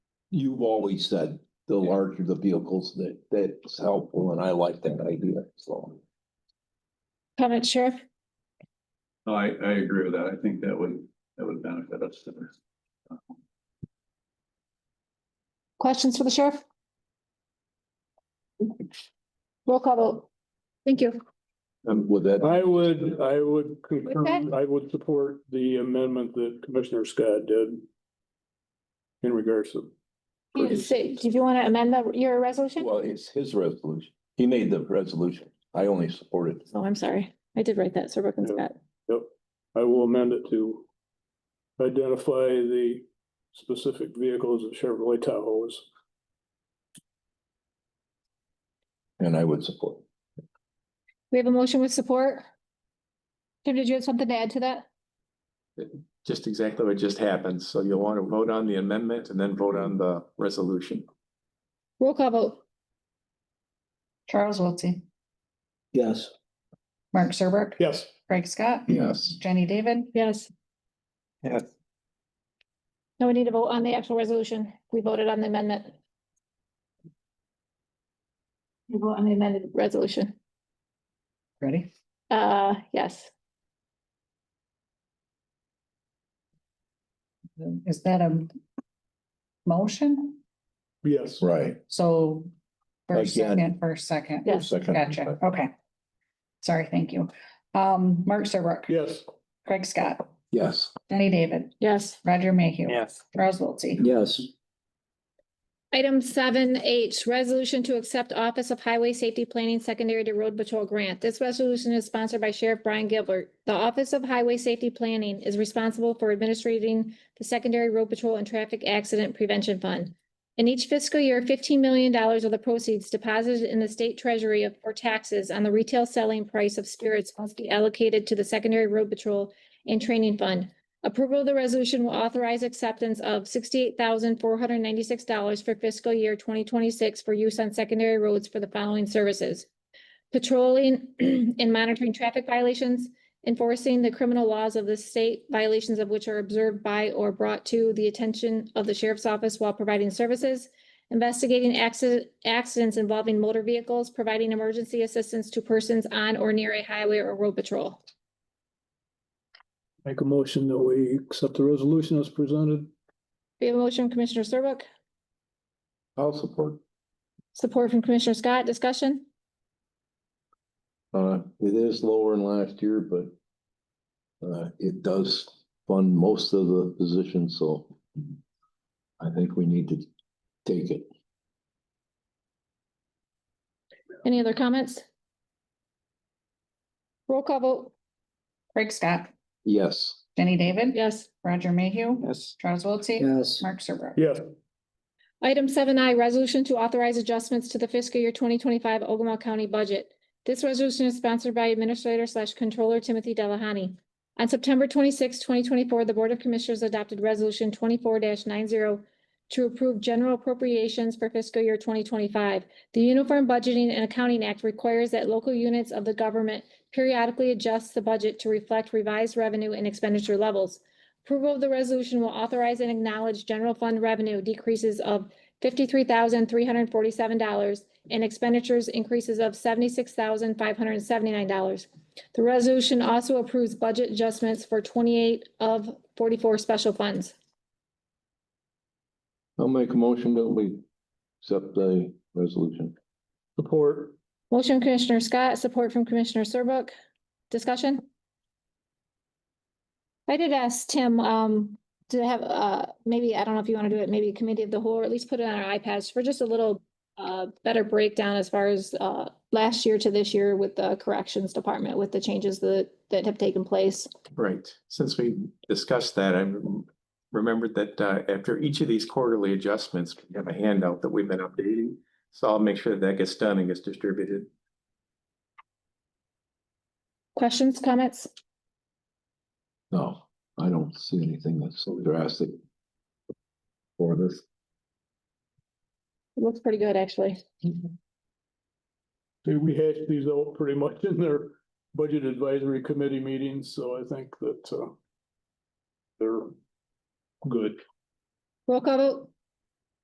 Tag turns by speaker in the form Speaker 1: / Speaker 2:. Speaker 1: You've always said the larger the vehicles, that, that's helpful, and I like that idea, so.
Speaker 2: Comment, Sheriff?
Speaker 3: No, I, I agree with that. I think that would, that would benefit us.
Speaker 2: Questions for the sheriff? Roll call vote. Thank you.
Speaker 1: And with that,
Speaker 4: I would, I would
Speaker 2: Okay.
Speaker 4: concur, I would support the amendment that Commissioner Scott did. In regards to,
Speaker 2: You can say, do you want to amend the, your resolution?
Speaker 1: well, it's his resolution. He made the resolution. I only supported.
Speaker 2: Oh, I'm sorry. I did write that, Sir Brooklyn
Speaker 4: Yeah.
Speaker 2: Scott.
Speaker 4: yep, I will amend it to. Identify the specific vehicles of Chevrolet Tahoe's.
Speaker 1: And I would support.
Speaker 2: We have a motion with support. Tim, did you have something to add to that?
Speaker 5: Just exactly what just happened. So you'll want to vote on the amendment and then vote on the resolution.
Speaker 2: Roll call vote.
Speaker 6: Charles Wiltie,
Speaker 1: Yes.
Speaker 6: Mark Serbrook,
Speaker 4: Yes,
Speaker 6: Craig Scott,
Speaker 5: Yes.
Speaker 6: Jenny David,
Speaker 2: Yes.
Speaker 5: Yes.
Speaker 2: Now we need to vote on the actual resolution. We voted on the amendment. We vote on the amended resolution.
Speaker 6: ready?
Speaker 2: Uh, yes.
Speaker 6: Is that a motion?
Speaker 4: yes.
Speaker 1: Right.
Speaker 6: So first,
Speaker 1: Again.
Speaker 6: second, first, second.
Speaker 2: Yes.
Speaker 1: Second.
Speaker 6: Gotcha, okay. Sorry, thank you. Um, Mark Serbrook.
Speaker 4: Yes,
Speaker 6: Craig Scott,
Speaker 1: Yes.
Speaker 6: Jenny David,
Speaker 2: Yes.
Speaker 6: Roger Mayhew.
Speaker 5: Yes.
Speaker 6: Charles Wiltie.
Speaker 1: Yes.
Speaker 2: Item seven H, resolution to accept Office of Highway Safety Planning Secondary to Road Patrol Grant. This resolution is sponsored by Sheriff Brian Gilbert. The Office of Highway Safety Planning is responsible for administering the Secondary Road Patrol and Traffic Accident Prevention Fund. In each fiscal year, fifteen million dollars of the proceeds deposited in the state treasury of- for taxes on the retail selling price of spirits must be allocated to the Secondary Road Patrol and Training Fund. Approval of the resolution will authorize acceptance of sixty-eight thousand four hundred ninety-six dollars for fiscal year twenty twenty-six for use on secondary roads for the following services. Patrolling and monitoring traffic violations, enforcing the criminal laws of the state, violations of which are observed by or brought to the attention of the sheriff's office while providing services, investigating accident, accidents involving motor vehicles, providing emergency assistance to persons on or near a highway or road patrol.
Speaker 4: make a motion that we accept the resolution as presented.
Speaker 2: We have a motion, Commissioner Serbuk.
Speaker 1: I'll support.
Speaker 2: Support from Commissioner Scott, discussion?
Speaker 1: Uh, it is lower than last year, but uh, it does fund most of the positions, so I think we need to take it.
Speaker 2: Any other comments? Roll call vote,
Speaker 6: Craig Scott,
Speaker 1: Yes.
Speaker 6: Jenny David.
Speaker 2: yes.
Speaker 6: Roger Mayhew.
Speaker 5: Yes.
Speaker 6: Charles Wiltie.
Speaker 1: Yes.
Speaker 6: Mark Serbrook.
Speaker 4: Yes,
Speaker 2: Item seven I, resolution to authorize adjustments to the fiscal year twenty twenty-five Ogama County budget. This resolution is sponsored by Administrator slash Controller Timothy Delahani. On September 26, twenty twenty-four, the Board of Commissioners adopted Resolution twenty-four nine zero to approve general appropriations for fiscal year twenty twenty-five. The Uniform Budgeting and Accounting Act requires that local units of the government periodically adjust the budget to reflect revised revenue and expenditure levels. Approval of the resolution will authorize and acknowledge general fund revenue decreases of fifty-three thousand, three hundred and forty-seven dollars and expenditures increases of seventy-six thousand, five hundred and seventy-nine dollars. The resolution also approves budget adjustments for twenty-eight of forty-four special funds.
Speaker 1: I'll make a motion that we accept the resolution.
Speaker 4: support,
Speaker 2: Motion Commissioner Scott, support from Commissioner Serbuk. Discussion? I did ask Tim, um, to have, uh, maybe, I don't know if you want to do it, maybe a committee of the whole, or at least put it on our iPads for just a little uh, better breakdown as far as, uh, last year to this year with the corrections department, with the changes that, that have taken place.
Speaker 5: Right. Since we discussed that, I remembered that uh, after each of these quarterly adjustments, we have a handout that we've been updating. So I'll make sure that gets done and gets distributed.
Speaker 2: Questions, comments?
Speaker 1: No, I don't see anything that's so drastic for this.
Speaker 2: It Looks pretty good, actually.
Speaker 4: See, we hashed these out pretty much in their budget advisory committee meetings, so I think that, uh. They're good.
Speaker 2: Roll call vote,